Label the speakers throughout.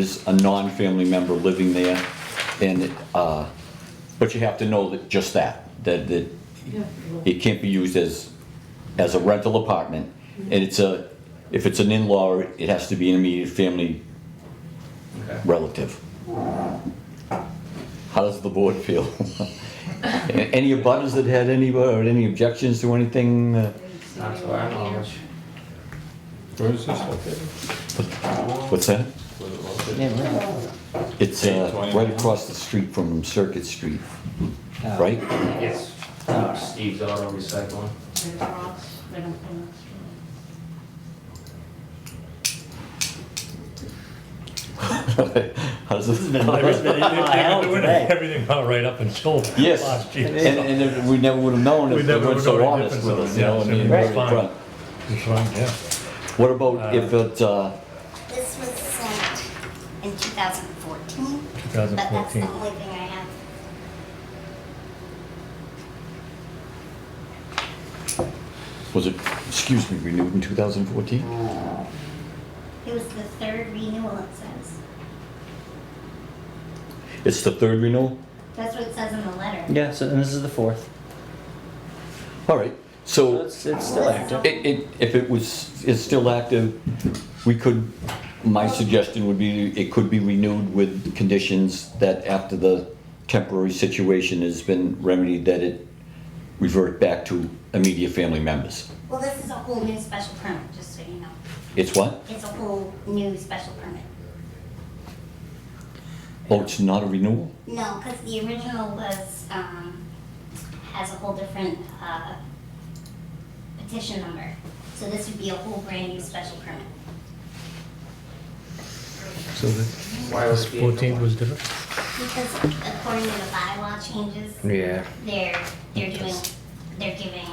Speaker 1: is a non-family member living there, and, uh, but you have to know that, just that, that, that
Speaker 2: Yeah.
Speaker 1: it can't be used as, as a rental apartment, and it's a, if it's an in-law, it has to be an immediate family
Speaker 3: Okay.
Speaker 1: relative. How does the board feel? Any abutters that had any, or any objections to anything? uh,
Speaker 3: Not to our knowledge.
Speaker 4: Where is this located?
Speaker 1: What's that?
Speaker 4: Where is it located?
Speaker 1: It's uh, right across the street from Circuit Street,
Speaker 5: Oh.
Speaker 1: right?
Speaker 3: Yes, uh, Steve's Auto Recycling.
Speaker 2: They don't cross, they don't cross.
Speaker 1: How does this?
Speaker 5: Oh, Everything went right up until
Speaker 1: Yes,
Speaker 5: last
Speaker 1: and,
Speaker 5: year.
Speaker 1: and if- we never would have known
Speaker 5: We
Speaker 1: if they
Speaker 5: never
Speaker 1: weren't
Speaker 5: would've
Speaker 1: so
Speaker 5: known any
Speaker 1: honest with
Speaker 5: difference,
Speaker 1: us, you know,
Speaker 5: yes,
Speaker 1: and
Speaker 5: I
Speaker 1: being
Speaker 5: mean,
Speaker 1: very
Speaker 5: it's fine.
Speaker 1: front.
Speaker 5: It's fine, yeah.
Speaker 1: What about if it, uh,
Speaker 6: This was sent in 2014. But that's
Speaker 5: 2014.
Speaker 6: the only thing I have.
Speaker 1: was it, excuse me, renewed in 2014?
Speaker 6: It was the third renewal, it says.
Speaker 1: It's the third renewal?
Speaker 6: That's what it says in the letter.
Speaker 7: Yeah, so and this is the fourth.
Speaker 1: All right, so
Speaker 7: So it's, it's still active.
Speaker 1: it, it, if it was, is still active, we could, my suggestion would be, it could be renewed with conditions that after the temporary situation has been remedied, that it revert back to immediate family members.
Speaker 6: Well, this is a whole new special permit, just so you know.
Speaker 1: It's what?
Speaker 6: It's a whole new special permit.
Speaker 1: Oh, it's not a renewal?
Speaker 6: No, because the original was, um, has a whole different, uh, petition number. So this would be a whole brand new special permit.
Speaker 5: So the
Speaker 3: Why was it being-
Speaker 5: 14th was different?
Speaker 6: Because according to the bylaw changes,
Speaker 5: Yeah.
Speaker 6: they're, they're doing, they're giving,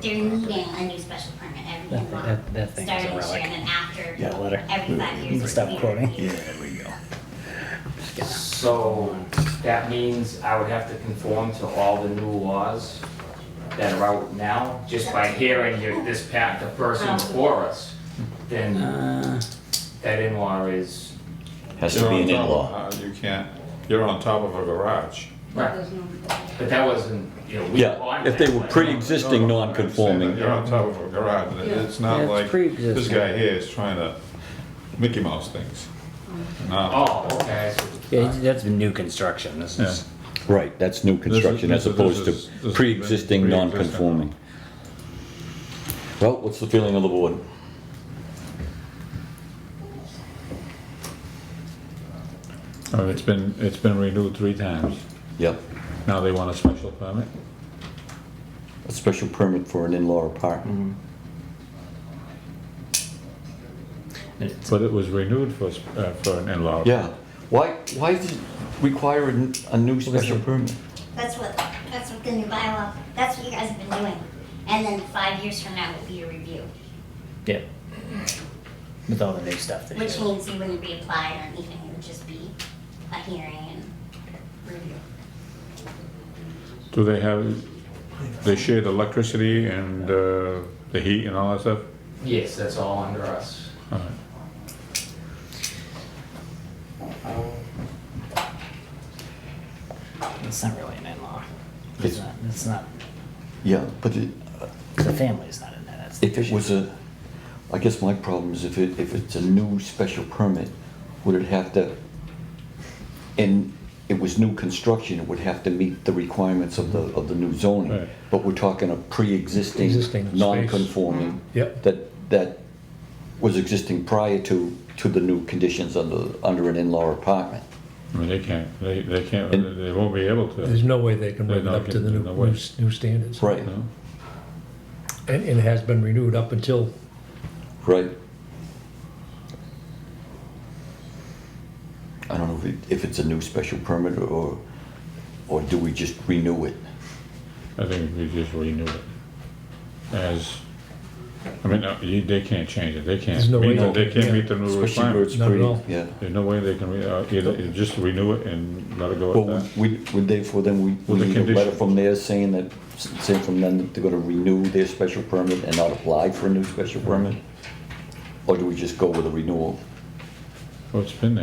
Speaker 6: they're needing a new special permit every
Speaker 7: That-
Speaker 6: month.
Speaker 7: that- that thing is a
Speaker 6: Starting this year
Speaker 7: relic.
Speaker 6: and then after,
Speaker 7: Yeah, letter.
Speaker 6: every five years.
Speaker 7: You can stop
Speaker 6: we
Speaker 7: quoting.
Speaker 6: review.
Speaker 3: So that means I would have to conform to all the new laws that are out now, just by hearing your, this pat, the person before us, then that in-law is,
Speaker 1: Has to
Speaker 4: You're
Speaker 1: be
Speaker 4: on
Speaker 1: an
Speaker 4: top of-
Speaker 1: in-law.
Speaker 4: uh, You can't, you're on top of a garage.
Speaker 3: right,
Speaker 2: There's no.
Speaker 3: but that wasn't, you know, we. well,
Speaker 1: Yeah,
Speaker 3: I'm
Speaker 1: if they were
Speaker 3: thinking,
Speaker 1: pre-existing
Speaker 4: No, no, I understand that.
Speaker 1: non-conforming.
Speaker 4: You're on top of a garage, It- it's not
Speaker 7: Yeah, it's
Speaker 4: like, this
Speaker 7: pre-existing.
Speaker 4: guy here is trying to Mickey Mouse things. No,
Speaker 3: Oh, okay,
Speaker 7: Yeah, that's new construction. This
Speaker 4: yeah,
Speaker 7: is
Speaker 1: Right, that's new construction as
Speaker 4: this is-
Speaker 1: opposed
Speaker 4: this is- this
Speaker 1: to
Speaker 4: is
Speaker 1: pre-existing
Speaker 4: pre-existing.
Speaker 1: non-conforming. Well, what's the feeling of the board?
Speaker 4: Oh, it's been, it's been renewed three times,
Speaker 1: Yep,
Speaker 4: now they want a special permit?
Speaker 1: a special permit for an in-law apartment.
Speaker 7: it's,
Speaker 4: But it was renewed for, s- uh, for an in-law.
Speaker 1: Yeah, why, why does it require a n- a new special
Speaker 7: it?
Speaker 1: permit?
Speaker 6: That's what, that's what the new bylaw, that's what you guys have been doing. And then five years from now will be a review,
Speaker 7: yeah. With all the new stuff that
Speaker 6: which
Speaker 7: you
Speaker 6: means you wouldn't reapply or anything, it would just be a hearing and review.
Speaker 4: Do they have, they share the electricity and uh, the heat and all that stuff?
Speaker 3: yes, that's all under us.
Speaker 4: All right.
Speaker 7: it's not really an in-law. It's,
Speaker 1: It's-
Speaker 7: not. It's not.
Speaker 1: Yeah, but it-
Speaker 7: The family's not in there. That's the
Speaker 1: if it
Speaker 7: issue.
Speaker 1: was a, I guess my problem is if it, if it's a new special permit, would it have to, and it was new construction, it would have to meet the requirements of the, of the new zoning.
Speaker 4: Right.
Speaker 1: But we're talking a pre-existing, Mm-hmm.
Speaker 5: Existing space.
Speaker 1: non-conforming.
Speaker 5: Yep.
Speaker 1: That, that was existing prior to, to the new conditions under, under an in-law apartment.
Speaker 4: I mean, they can't, they, they can't,
Speaker 1: And-
Speaker 4: they won't be able to.
Speaker 5: There's no way they can bring it
Speaker 4: They're not
Speaker 5: up to the
Speaker 4: getting-
Speaker 5: new,
Speaker 4: no way.
Speaker 5: new s- new standards.
Speaker 1: Right,
Speaker 4: No?
Speaker 5: And, and it has been renewed up until,
Speaker 1: right. I don't know if, it- if it's a new special permit or, or do we just renew it?
Speaker 4: I think we just renew it as, I mean, uh, you- they can't change it, they can't.
Speaker 5: There's no way
Speaker 4: meet the-
Speaker 5: they
Speaker 4: They
Speaker 5: can,
Speaker 4: can't
Speaker 5: yeah.
Speaker 4: meet the new
Speaker 1: Especially where it's
Speaker 4: requirements.
Speaker 5: Not at
Speaker 1: pretty,
Speaker 5: all.
Speaker 1: yeah.
Speaker 4: There's no way they can, re- uh, either, either just renew it and let it go
Speaker 1: Well,
Speaker 4: at that.
Speaker 1: we, we- therefore then we-
Speaker 4: With
Speaker 1: we
Speaker 4: the
Speaker 1: need a letter
Speaker 4: condition.
Speaker 1: from there saying that, saying from them that they're gonna renew their special permit and not apply for a new special permit? Or do we just go with a renewal?
Speaker 4: Well, it's been there.